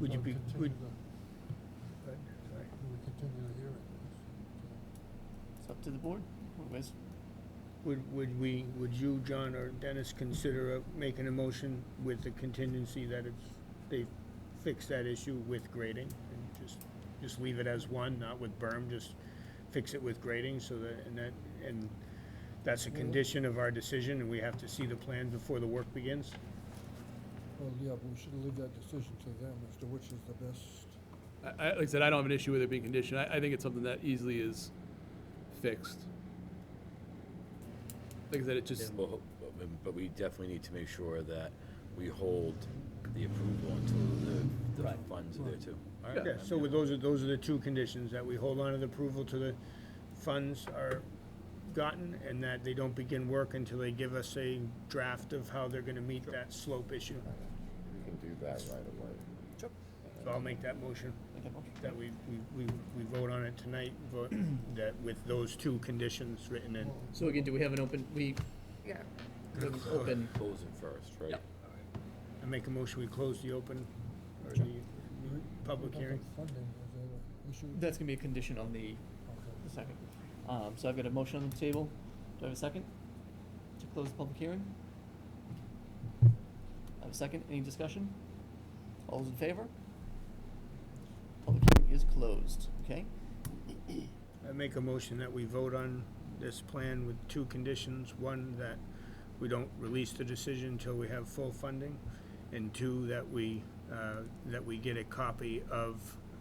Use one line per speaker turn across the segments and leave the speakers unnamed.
Would you be,
Continue
would,
the-
Right, sorry.
We would continue the hearing.
It's up to the board. Where's-
would, would we, would you, John, or Dennis consider uh, making a motion with the contingency that it's, they fix that issue with grading? and Just, just leave it as one, not with berm, just fix it with grading so that, and that, and that's a condition of our decision and we have to see the plan before the work begins?
Well, yeah, but we should leave that decision to them as to which is the best.
I, I, like I said, I don't have an issue with it being conditioned. I, I think it's something that easily is fixed. Like I said, it just,
Well, but- But we definitely need to make sure that we hold the approval until the, the funds are there too. All right,
Yeah,
I'm
so
good.
with those are, those are the two conditions, that we hold on to the approval to the funds are gotten, and that they don't begin work until they give us a draft of how they're gonna meet that slope issue.
We can do that right away.
So I'll make that motion,
make that motion.
that we, we, we, we vote on it tonight, vote that with those two conditions written in.
So again, do we have an open, we,
Yeah.
we have an open,
Close it first, right?
Yep.
I make a motion, we close the open, or the public
What about
hearing.
the Funding, is that an issue?
that's gonna be a condition on the,
Okay.
the second. Um, so I've got a motion on the table. Do I have a second? To close the public hearing? I have a second. Any discussion? All those in favor? Public hearing is closed, okay?
I make a motion that we vote on this plan with two conditions. One, that we don't release the decision until we have full funding. And two, that we, uh, that we get a copy of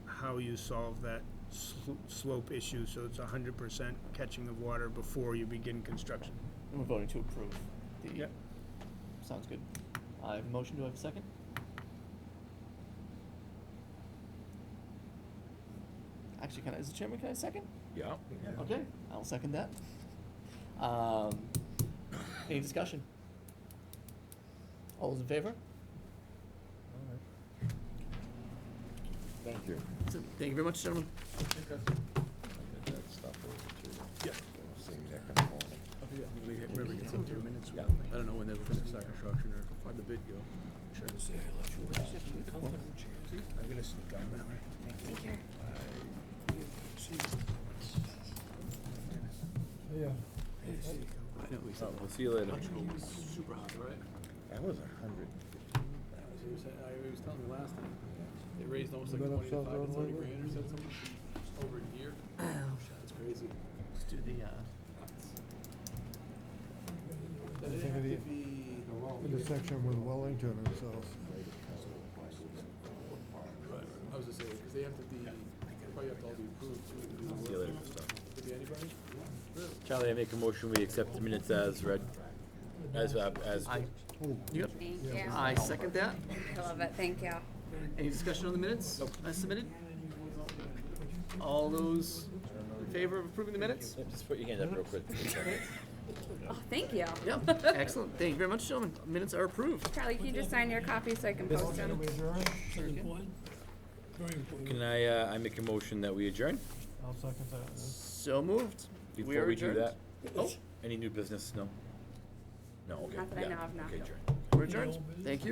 how you solve that slo- slope issue, so it's hundred percent catching of water before you begin construction.
And we're voting to approve. the-
Yep.
Sounds good. I have a motion. Do I have a second? Actually, can I, is the chairman, can I second?
Yeah,
Okay, I'll second that. Um, any discussion? All those in favor?
All right.
Thank you.
Thank you very much, gentlemen.
I did that stuff over too.
Yeah.
I've seen that in the morning.
we get two minutes. I don't know when they'll finish that construction or why'd the bid go.
I'm gonna sneak on that.
Yeah.
I know, we said.
Oh, we'll see you later.
Super hot, right?
That was a hundred.
He was, I, he was telling me last time, they raised almost
You
like
got
twenty to
upside
five,
down
thirty
lately?
grand or something, over a year. That's crazy.
Let's do the, uh,
Does it
think
have
of
to
the-
be?
Intersection with Wellington and so.
Right, I was just saying, cause they have to be, they probably have to all be approved too.
See you later, Christoph.
Could be anybody?
Charlie, I make a motion, we accept the minutes as read, as, uh, as.
I, yep,
Thank you.
I second that.
I love it. Thank you.
Any discussion on the minutes as submitted? All those in favor of approving the minutes?
Just put your hand up real quick.
Oh, thank you.
Yeah, excellent. Thank you very much, gentlemen. Minutes are approved.
Charlie, can you just sign your copy so I can post them?
Can I, uh, I make a motion that we adjourn?
I'll second that.
So moved. we
Before
are
we do
adjourned.
that,
Oh,
any new business? No? No, okay.
Not that I
yeah,
know of, no.
Okay, adjourn.
we're adjourned. Thank you.